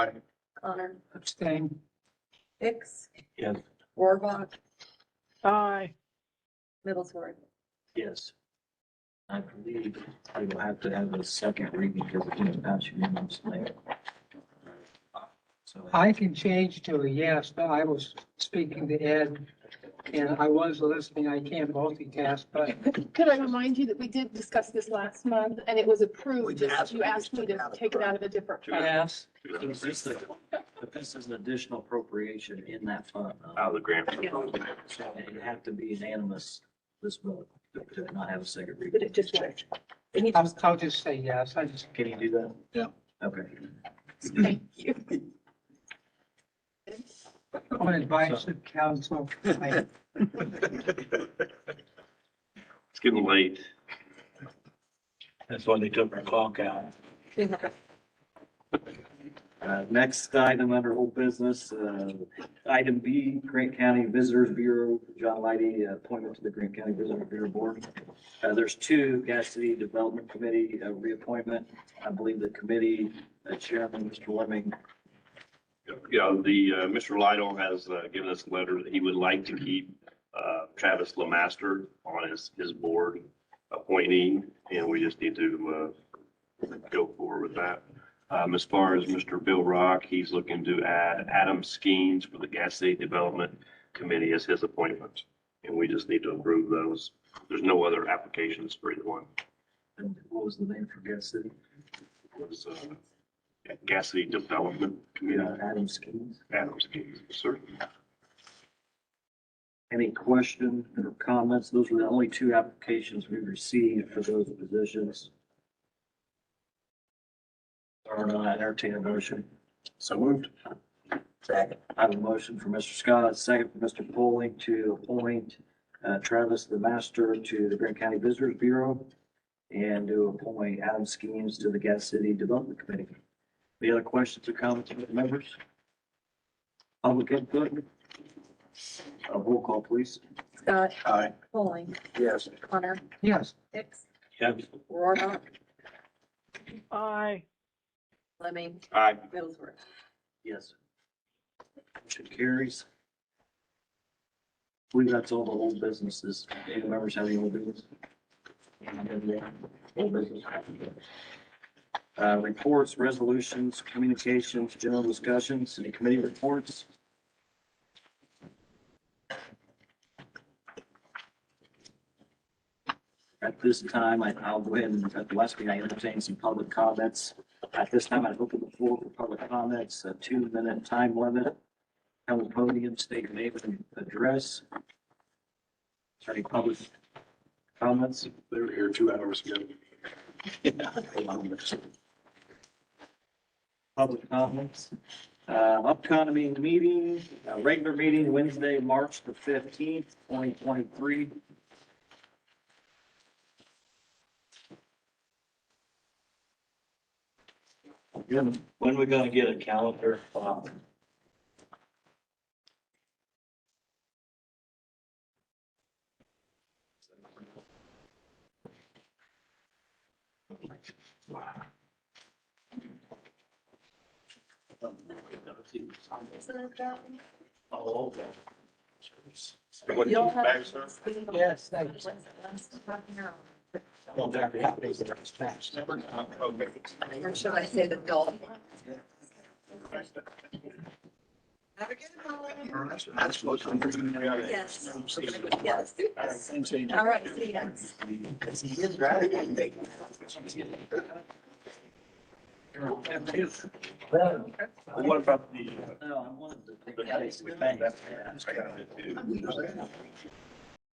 Connor, Abstain. Hicks, Yes. Rohrbach, Aye. Middlesworth. Yes. I believe we will have to have a second reading because we didn't pass unanimously. So I can change to a yes, but I was speaking to Ed and I was listening. I can't multitask, but Could I remind you that we did discuss this last month and it was We approved, asked- just you we asked me to take it out of a different fund. yes, Is this the- but this is an additional appropriation in that fund. though. Out of the grant. So It'd have to be unanimous, this vote, to not have a second But reading. it just worked. I'll, I'll just say yes. I just, Can you do that? Yeah. Okay. Thank you. on advice of council, I It's getting late. That's why they took our clock out. Uh, next item under old business, uh, item B, Grant County Visitors Bureau, John Lighty, uh, appointment to the Grant County Visitor Bureau Board. Uh, there's two, Gas City Development Committee, uh, reappointment. I believe the committee, uh, Chairman, Mr. Lemming, Yeah, the, uh, Mr. Lytle has uh, given us a letter that he would like to keep uh, Travis Lemaster on his, his board appointee, and we just need to uh, go forward with that. Um, As far as Mr. Bill Rock, he's looking to add Adam Skeens for the Gas City Development Committee as his appointment, and we just need to approve those. There's no other applications for either one. and what was the name for Gas City? It was, uh, Gas City Development Committee, Uh, Adam Skeens. Adam Skeens, sir. Any question or comments? Those were the only two applications we received for those positions. Or not, entertain a motion. So moved. I have a motion for Mr. Scott, a second for Mr. Poling to appoint uh, Travis the Master to the Grant County Visitors Bureau and to appoint Adam Skeens to the Gas City Development Committee. Any other questions or comments from the members? Public input? A roll call, please. Scott, Aye. Pauling, Yes. Connor, yes, Hicks, Yes. Rohrbach, aye. Lemming, Aye. Middlesworth. Yes. Motion carries. I believe that's all the old businesses. Any members have any old business? Old business. Uh, reports, resolutions, communications, general discussions, any committee reports? At this time, I- I'll go ahead and, at the last meeting, I entertained some public comments. At this time, I open the floor for public comments, a two-minute time limit. On the podium, state your name and address. Is there any public comments? They were here two hours ago. Public comments. Uh, upcoming meeting, uh, regular meeting Wednesday, March the fifteenth, twenty twenty-three. When are we gonna get a calendar? um, Bob? Oh, okay. What, You don't have- back, sir? Yes, thank you. Well, there we have it. Or should I say the dog? Yes. Yes. All right, see you. What about the? No, I wanted to think. Yeah. Thanks. uh,